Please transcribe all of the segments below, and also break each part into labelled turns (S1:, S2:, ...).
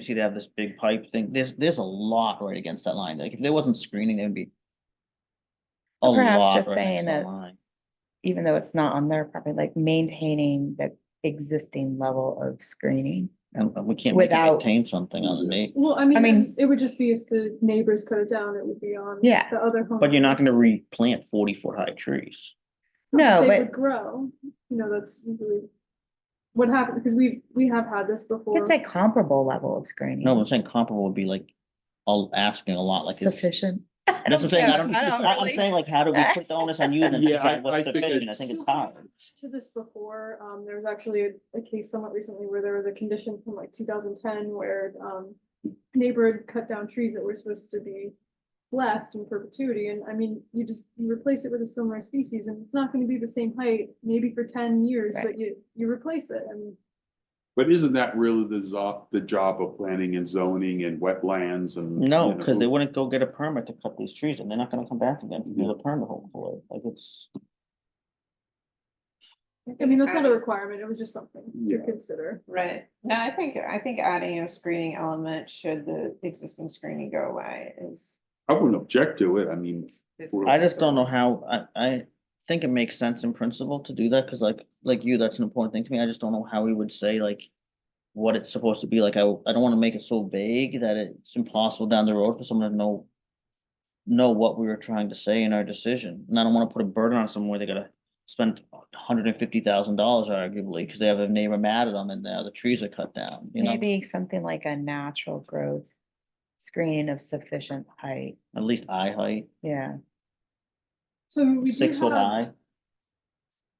S1: You see, they have this big pipe thing. There's, there's a lot right against that line. Like, if there wasn't screening, there'd be. a
S2: Perhaps
S1: lot
S2: just
S1: right next
S2: saying
S1: to that
S2: that-
S1: line.
S2: even though it's not on their property, like maintaining the existing level of screening.
S1: And and we can't make it
S2: Without-
S1: contain something on me,
S3: Well, I
S2: I
S3: mean,
S2: mean-
S3: it's- it would just be if the neighbors cut it down, it would be on.
S2: Yeah.
S3: The other home.
S1: but you're not gonna replant forty foot high trees.
S2: No,
S3: They
S2: but
S3: would grow, you know, that's usually what happened, because we, we have had this
S2: you
S3: before.
S2: could say comparable level of screening.
S1: No, I'm saying comparable would be like, i asking a lot, like, is-
S2: Sufficient.
S1: that's what I'm saying. I don't,
S2: I don't
S1: I- I'm
S2: really-
S1: saying like, how do we put the onus on you and then
S4: Yeah,
S1: decide
S4: I-
S1: what's
S4: I think
S1: sufficient? I
S4: it's-
S1: think it's
S3: So we
S1: hard.
S3: looked To this before, um, there was actually a, a case somewhat recently where there was a condition from like two thousand ten where, um, neighbor had cut down trees that were supposed to be left in perpetuity, and I mean, you just, you replace it with a similar species, and it's not gonna be the same height, maybe for ten years,
S2: Right.
S3: but you, you replace it, I mean,
S4: But isn't that really the zo- the job of planning and zoning and wetlands and?
S1: No,
S4: you know,
S1: because they wouldn't go get a permit to cut these trees, and they're not gonna come back again to do the permit hopefully, like, it's.
S3: I mean, that's not
S2: Um,
S3: a requirement, it was just something to
S4: Yeah.
S3: consider.
S5: Right, no, I think, I think adding a screening element should the existing screening go away is.
S4: I wouldn't object to it, I mean,
S5: is-
S4: I
S1: I just don't know how, I, I think it makes sense in principle to do that, cause like, like you, that's an important thing to me, I just don't know how we would say like. What it's supposed to be, like, I, I don't wanna make it so vague that it's impossible down the road for someone to know. Know what we were trying to say in our decision, and I don't wanna put a burden on someone where they gotta spend hundred and fifty thousand dollars arguably, cause they have a neighbor mad at them and now the trees are cut down, you know?
S2: Maybe something like a natural growth screening of sufficient height.
S1: At least eye height,
S2: Yeah,
S3: So we do
S1: six foot
S3: have,
S1: high,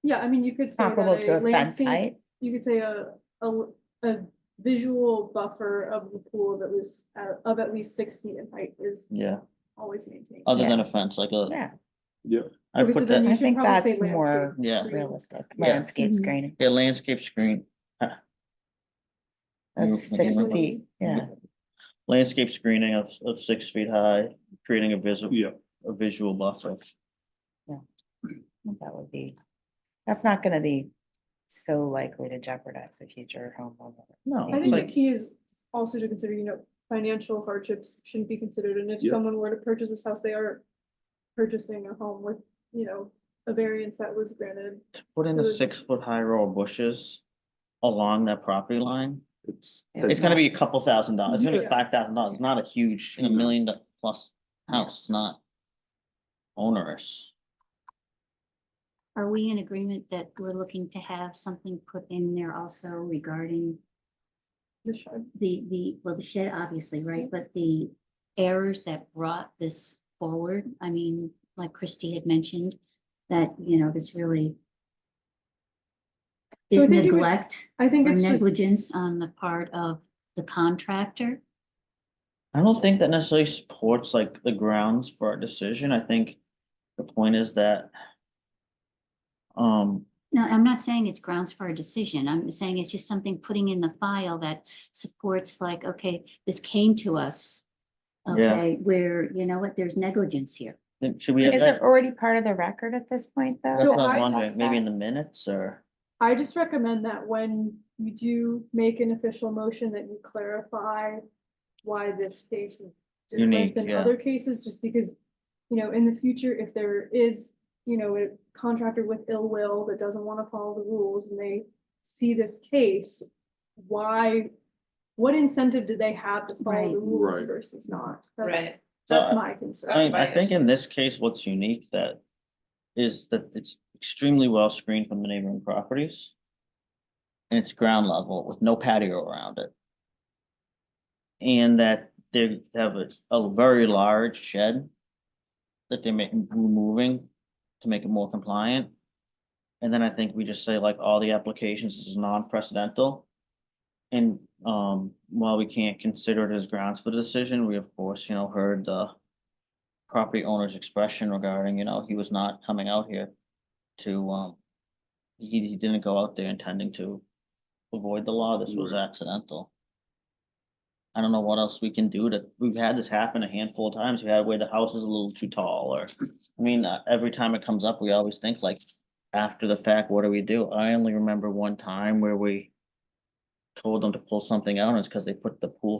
S3: yeah, I mean, you could say that
S2: comparable to
S3: a
S2: a fence
S3: landscape
S2: height.
S3: you could say a, a, a visual buffer of the pool of at least, uh, of at least six feet in height is
S1: yeah,
S3: always maintained.
S1: other
S2: Yeah.
S1: than a fence, like a,
S2: Yeah,
S1: I
S3: Okay, so
S1: put
S3: then
S1: that.
S3: you
S2: I
S3: should
S2: think
S3: probably say
S2: that's more
S3: landscape
S1: Yeah.
S3: screen.
S2: realistic.
S1: Yeah.
S2: Landscape
S3: Mhm.
S2: screening
S1: Yeah, landscape screen, We were
S2: of six
S1: thinking
S3: about-
S2: feet. Yeah,
S1: landscape screening of, of six feet high, creating a visual,
S4: yeah,
S1: a visual buffer.
S2: I think that would be, that's not gonna be so likely to jeopardize the future homeowner.
S1: No,
S3: I
S1: it's
S3: think the
S1: like,
S3: key is also to consider, you know, financial hardships shouldn't be considered, and if
S4: Yeah.
S3: someone were to purchase this house, they are purchasing a home with, you know, a variance that was granted.
S1: to put in the six foot high row of bushes along that property line,
S4: it's.
S1: it's gonna be a couple thousand dollars, it's gonna be
S3: Yeah.
S1: five thousand dollars, it's not a huge, in a
S4: No.
S1: million do- plus house, it's not onerous.
S6: Are we in agreement that we're looking to have something put in there also regarding
S3: the shed.
S6: the, the, well, the shed, obviously, right? But the errors that brought this forward, I mean, like Christie had mentioned, that, you know, this really
S3: So I
S6: is
S3: think it would-
S6: neglect
S3: I think
S6: or
S3: it's just,
S6: negligence on the part of the contractor.
S1: I don't think that necessarily supports like the grounds for our decision, I think the point is that. Um,
S6: No, I'm not saying it's grounds for a decision. I'm saying it's just something putting in the file that supports like, okay, this came to us.
S1: Yeah.
S6: Okay, where, you know what, there's negligence here.
S1: then should we have
S2: Is it
S1: that?
S2: already part of the record at this point, though?
S1: That's what I was
S3: I-
S1: wondering, maybe in the minutes or,
S3: I just recommend that when you do make an official motion, that you clarify why this case is
S1: Unique,
S3: different than
S1: yeah.
S3: other cases, just because, you know, in the future, if there is, you know, a contractor with ill will that doesn't want to follow the rules and they see this case, why, what incentive do they have to follow
S6: Right.
S3: the rules
S4: Right.
S3: versus not? That's-
S5: Right,
S3: That's
S1: Uh,
S3: my
S1: I
S3: concern.
S1: mean, I
S5: my
S1: think in this case, what's unique that is that it's extremely well screened from the neighboring properties. And it's ground level with no patio around it. And that they have a, a very large shed that they're making, removing to make it more compliant. And then I think we just say like all the applications this is non-precedental. And, um, while we can't consider it as grounds for the decision, we of course, you know, heard the property owner's expression regarding, you know, he was not coming out here to, um, he, he didn't go out there intending to avoid the law. This was accidental. I don't know what else we can do to, we've had this happen a handful of times. We had where the house is a little too tall or, I mean, uh, every time it comes up, we always think like, after the fact, what do we do? I only remember one time where we told them to pull something out and it's because they put the pool